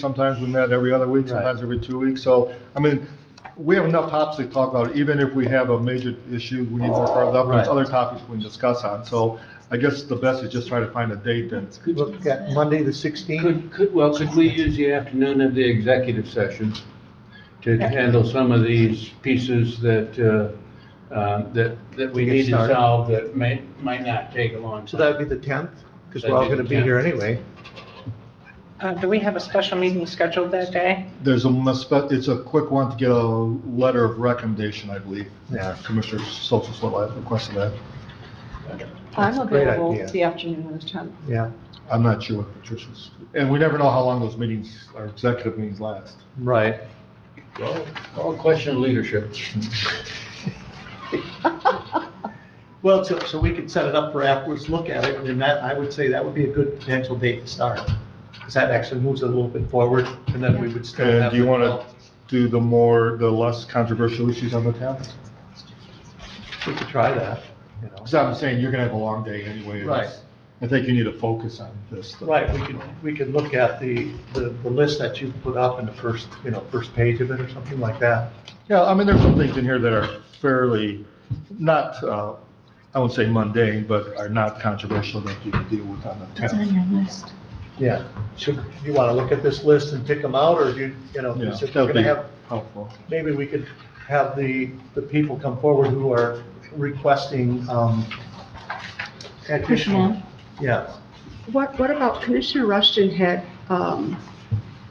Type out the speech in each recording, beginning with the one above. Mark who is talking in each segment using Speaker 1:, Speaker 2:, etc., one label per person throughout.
Speaker 1: Sometimes we met every other week, sometimes every two weeks. So, I mean, we have enough topics to talk about, even if we have a major issue, we need more further up, there's
Speaker 2: Right.
Speaker 1: other topics we can discuss on. So I guess the best is just try to find a date and
Speaker 3: Could
Speaker 2: Look
Speaker 3: look
Speaker 2: at
Speaker 3: at Monday, the 16th.
Speaker 2: Could, could, well, could we use the afternoon of the executive session to handle some of these pieces that, uh, uh, that, that we
Speaker 3: To get
Speaker 2: need to
Speaker 3: started.
Speaker 2: solve that may, might not take a long
Speaker 3: So
Speaker 2: time?
Speaker 3: that'd be the 10th, because
Speaker 2: That'd
Speaker 3: we're all
Speaker 2: be
Speaker 3: going to
Speaker 2: the
Speaker 3: be
Speaker 2: 10th.
Speaker 3: here anyway.
Speaker 4: Uh, Do we have a special meeting scheduled that day?
Speaker 1: there's a, muspe- it's a quick one to get a letter of recommendation, I believe.
Speaker 3: Yeah.
Speaker 1: Commissioner Soltis Whitlock requested that.
Speaker 5: I'm
Speaker 3: a great
Speaker 5: available
Speaker 3: idea.
Speaker 5: the afternoon of the 10th.
Speaker 3: Yeah,
Speaker 1: I'm not sure what Patricia's, and we never know how long those meetings, our executive meetings last.
Speaker 3: right.
Speaker 2: Well, All question of leadership.
Speaker 3: Well, so, so we could set it up for afterwards, look at it, and that, I would say that would be a good potential date to start. Because that actually moves it a little bit forward, and then we would still have.
Speaker 1: And do you
Speaker 3: the-
Speaker 1: want to do the more, the less controversial issues on the town?
Speaker 3: We could try that, you know.
Speaker 1: Because I'm saying you're gonna have a long day anyway.
Speaker 3: Right.
Speaker 1: I think you need to focus on this. stuff.
Speaker 3: Right, we could, we could look at the, the, the list that you put up in the first, you know, first page of it or something like that.
Speaker 1: Yeah, I mean, there's some things in here that are fairly, not, uh, I wouldn't say mundane, but are not controversial that you can deal with on the town.
Speaker 5: your list.
Speaker 3: Yeah. Should, you want to look at this list and pick them out, or do you, you know,
Speaker 1: Yeah,
Speaker 3: is it- we're
Speaker 1: that'd
Speaker 3: going to
Speaker 1: be
Speaker 3: have
Speaker 1: helpful.
Speaker 3: maybe we could have the, the people come forward who are requesting, um, additional.
Speaker 5: Personnel.
Speaker 3: Yeah,
Speaker 6: What, what about Commissioner Rushton had, um,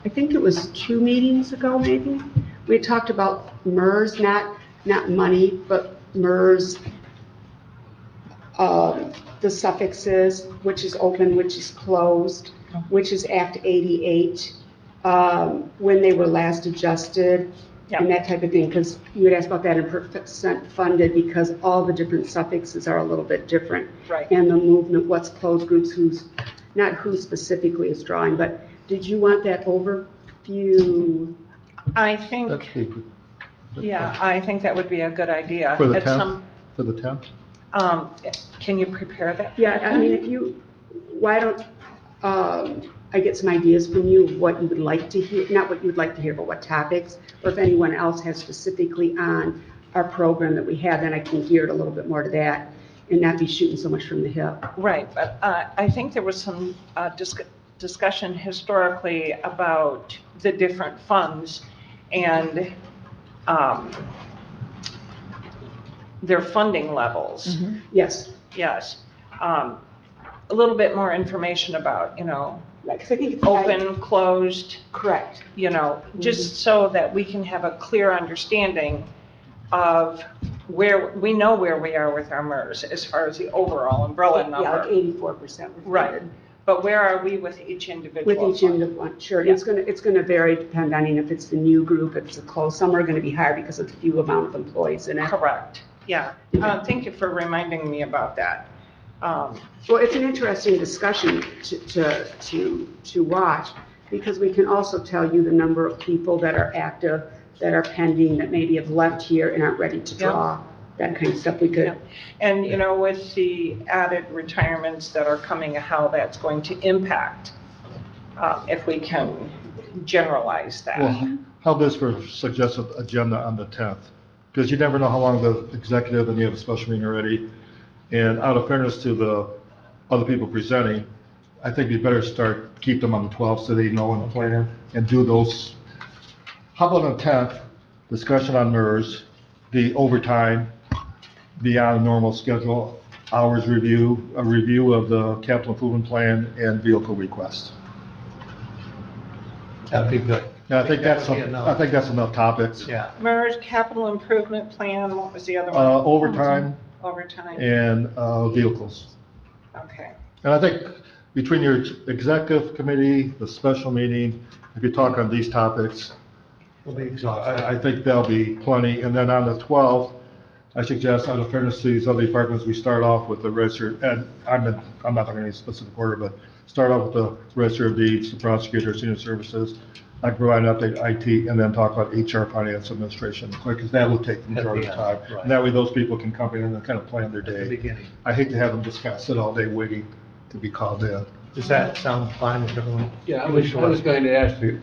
Speaker 6: I think it was two meetings ago, maybe? We had talked about MERS, not, not money, but MERS, um, the suffixes, which is open, which is closed, which is Act 88, um, when they were last adjusted, and that type of thing, because you had asked about that in percent funded, because all the different suffixes are a little bit different
Speaker 4: Right.
Speaker 6: and the movement, what's closed groups, who's, not who specifically is drawing, but did you want that overview?
Speaker 4: I
Speaker 1: That's
Speaker 4: think,
Speaker 1: the-
Speaker 4: yeah, I think that would be a good idea.
Speaker 1: For the
Speaker 4: At
Speaker 1: town?
Speaker 4: some-
Speaker 1: For the town?
Speaker 4: Um, can you prepare that?
Speaker 6: Yeah, I mean, if you, why don't, um, I get some ideas from you of what you would like to hear, not what you would like to hear, but what topics, or if anyone else has specifically on our program that we have, then I can gear it a little bit more to that and not be shooting so much from the hip.
Speaker 4: Right, but uh, I think there was some uh, disc- discussion historically about the different funds and um, their funding levels.
Speaker 5: Mm-hmm.
Speaker 6: Yes,
Speaker 4: Yes. Um, A little bit more information about, you know,
Speaker 6: because I think it's.
Speaker 4: open, closed,
Speaker 6: Correct. Mm-hmm.
Speaker 4: you know, just so that we can have a clear understanding of where, we know where we are with our MERS as far as the overall umbrella
Speaker 6: Yeah, like
Speaker 4: number.
Speaker 6: eighty-four percent.
Speaker 4: Right, but where are we with each individual?
Speaker 6: With each
Speaker 4: fund?
Speaker 6: end of one, sure. It's going to, it's going to vary depending if it's the new group, if it's a close. Some are going to be higher because of the few amount of employees in it.
Speaker 4: Correct, yeah.
Speaker 6: Mm-hmm.
Speaker 4: Uh, Thank you for reminding me about that. Um,
Speaker 6: Well, it's an interesting discussion to, to, to, to watch because we can also tell you the number of people that are active, that are pending, that maybe have left here and aren't ready to
Speaker 4: Yeah.
Speaker 6: draw. That kind of stuff we
Speaker 4: Yeah.
Speaker 6: could,
Speaker 4: And, you know, with the added retirements that are coming, how that's going to impact, uh, if we can generalize that.
Speaker 1: Well, how this for suggested agenda on the 10th? Because you never know how long the executive and you have a special meeting already. And out of fairness to the other people presenting, I think we better start, keep them on the 12th so they know and plan and do those. How about on the 10th, discussion on MERS, the overtime, beyond normal schedule, hours review, a review of the capital improvement plan and vehicle request.
Speaker 3: that'd be good.
Speaker 1: Now, I think that's,
Speaker 3: That would be
Speaker 1: a-
Speaker 3: enough.
Speaker 1: I think that's enough topics.
Speaker 3: Yeah,
Speaker 4: MERS capital improvement plan, what was the other one?
Speaker 1: Uh, overtime
Speaker 4: Overtime,
Speaker 1: and, uh, vehicles.
Speaker 4: okay.
Speaker 1: And I think between your executive committee, the special meeting, if you talk on these topics,
Speaker 3: we'll be
Speaker 1: I,
Speaker 3: exhausted.
Speaker 1: I think that'll be plenty. And then on the twelfth, I suggest out of fairness to these other departments, we start off with the register, and I'm, in- I'm not talking any specific order, but start off with the register of deeds, the prosecutor, senior services. I provide an update IT and then talk about HR, finance, administration, because that will take the majority of
Speaker 3: At
Speaker 1: the
Speaker 3: the
Speaker 1: time.
Speaker 3: end, right.
Speaker 1: And that way those people can come in and kind of plan their
Speaker 3: At the
Speaker 1: day.
Speaker 3: beginning.
Speaker 1: I hate to have them just kind of sit all day waiting to be called in.
Speaker 3: Does that sound fine with everyone?
Speaker 2: Yeah, I was, I was going to ask you,